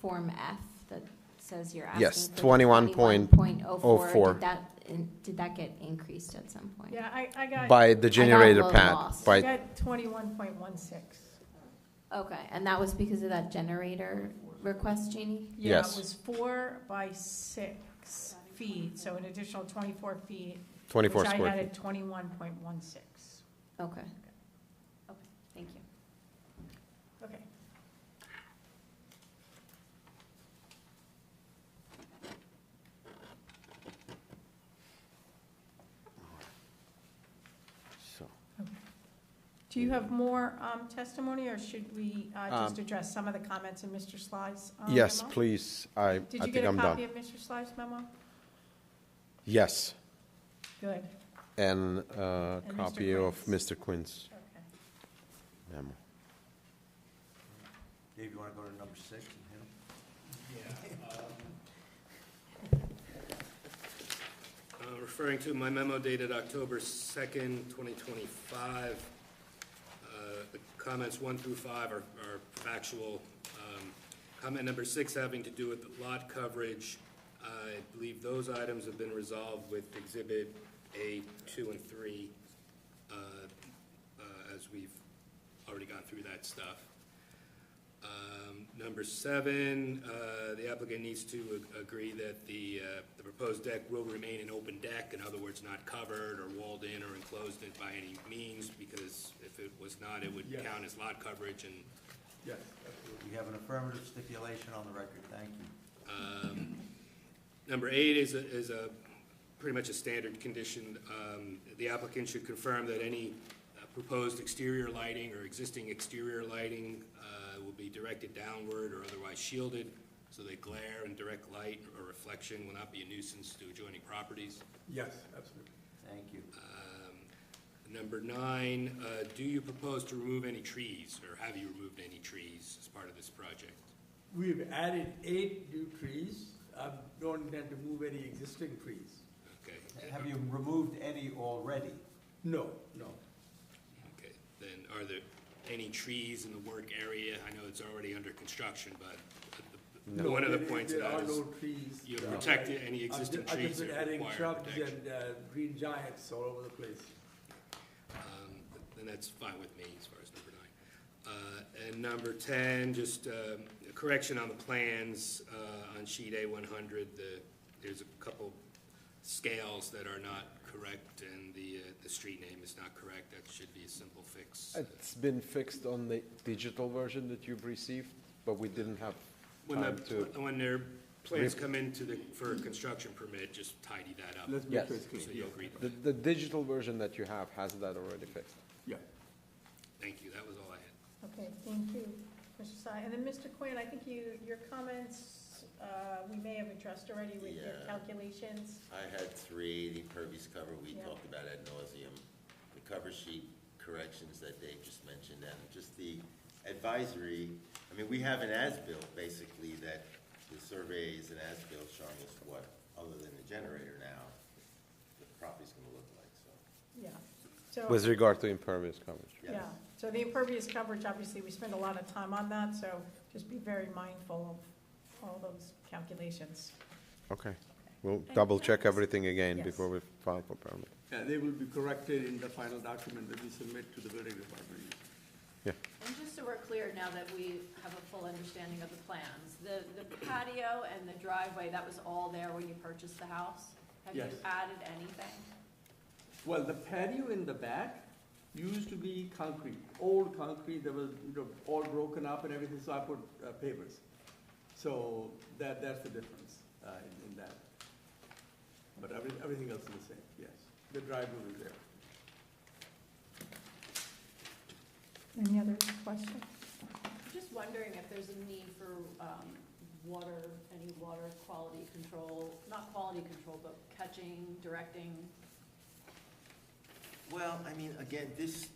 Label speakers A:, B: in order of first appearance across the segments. A: Form F that says you're asking?
B: Yes,
A: for
B: 21.04.
A: 21.04. Did that, in- did that get increased at some point?
C: Yeah, I, I got, I
B: by the generator
A: little
B: pad,
A: lost.
B: by,
C: got twenty-one point one six.
A: Okay, and that was because of that generator request, Jeannie?
C: Yeah, it
B: Yes.
C: was four by six feet, so an additional twenty-four feet.
B: twenty-four
C: Which I
B: square
C: had
B: feet.
C: at twenty-one point one six.
A: Okay. Okay, thank you.
C: Okay. Oh, Do you have more um, testimony, or should we uh, just
B: Um,
C: address some of the comments in Mr. Sly's um,
B: Yes,
C: memo?
B: please, I, I
C: Did you
B: think
C: get a
B: I'm
C: copy
B: done.
C: of Mr. Sly's memo?
B: Yes,
C: Good,
B: and a
C: Mr.
B: copy of
C: Quinn's.
B: Mr. Quinn's
C: okay.
B: memo.
D: Dave, you want to go to number six and hit him?
E: Uh, Referring to my memo dated October 2nd, 2025, uh, the comments one through five are are factual. Um, Comment number six having to do with lot coverage, I believe those items have been resolved with Exhibit A, 2, and 3, uh, uh, as we've already gone through that stuff. Um, Number seven, uh, the applicant needs to ag- agree that the, uh, the proposed deck will remain an open deck, in other words, not covered or walled in or enclosed in by any means, because if it was not, it would count as lot coverage, and
D: Yes. We have an affirmative stipulation on the record, thank you.
E: Number eight is a, is a, pretty much a standard condition. Um, The applicant should confirm that any uh, proposed exterior lighting or existing exterior lighting uh, will be directed downward or otherwise shielded, so that glare and direct light or reflection will not be a nuisance to adjoining properties.
F: Yes, absolutely.
D: Thank you.
E: Um, Number nine, uh, do you propose to remove any trees, or have you removed any trees as part of this project?
F: We've added eight new trees. I don't intend to move any existing trees.
E: Okay.
D: Have you removed any already?
F: No, no.
E: Okay, then are there any trees in the work area? I know it's already under construction, but the- the-
F: No,
E: one of the
F: there-
E: points of
F: There
E: that
F: are
E: is
F: no trees.
E: you're
F: No.
E: protecting any
F: I've ju-
E: existing
F: I've
E: trees
F: just been
E: that
F: adding
E: require
F: shrubs
E: protection.
F: And uh, green giants all over the place.
E: Um, Then that's fine with me as far as number nine. Uh, And number 10, just um, a correction on the plans uh, on sheet A100, the- there's a couple scales that are not correct, and the, uh, the street name is not correct. That should be a simple fix.
B: It's been fixed on the digital version that you've received, but we didn't have
E: When
B: time
E: the,
B: to.
E: when their plans come into the, for a construction permit, just tidy that up,
F: Let's
B: make Yes.
F: make
B: sure
F: sure
B: it's
F: it's
E: so you'll
F: clean.
E: agree to
B: The,
E: that.
B: the digital version that you have has that already fixed.
F: Yeah.
E: Thank you, that was all I had.
C: Okay, thank you, Mr. Sy. And then, Mr. Quinn, I think you, your comments, uh, we may have addressed already with your
G: Yeah.
C: calculations.
G: I had three eighty impervious cover, we
C: Yeah.
G: talked about ad nauseum. The cover sheet corrections that Dave just mentioned, and just the advisory, I mean, we have an as-built, basically, that the survey is an as-built showing us what, other than the generator now, the property's gonna look like, so.
C: Yeah. So-
B: With regard to impervious coverage.
G: yes.
C: Yeah, so the impervious coverage, obviously, we spend a lot of time on that, so just be very mindful of all those calculations.
B: Okay, we'll double check everything again
C: Yes.
B: before we file for permit.
F: Yeah, they will be corrected in the final document that we submit to the building department.
B: Yeah,
H: And just so we're clear, now that we have a full understanding of the plans, the, the patio and the driveway, that was all there when you purchased the house? Have you
F: Yes.
H: added anything?
F: Well, the patio in the back used to be concrete, old concrete that was, you know, all broken up and everything, so I put uh, pavers. So that, that's the difference uh, in in that. But everything, everything else is the same, yes. The driveway is there.
C: Any other questions?
H: I'm just wondering if there's a need for, um, water, any water quality control, not quality control, but catching, directing?
G: Well, I mean, again, this,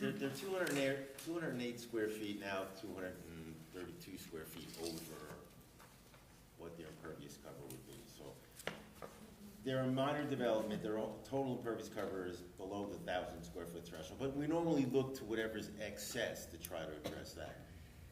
G: they're, they're two hundred and eight, two hundred and eight square feet now, two hundred and thirty-two square feet over what their impervious cover would be, so. They're a minor development, their o- total impervious cover is below the thousand square foot threshold, but we normally look to whatever's excess to try to address that.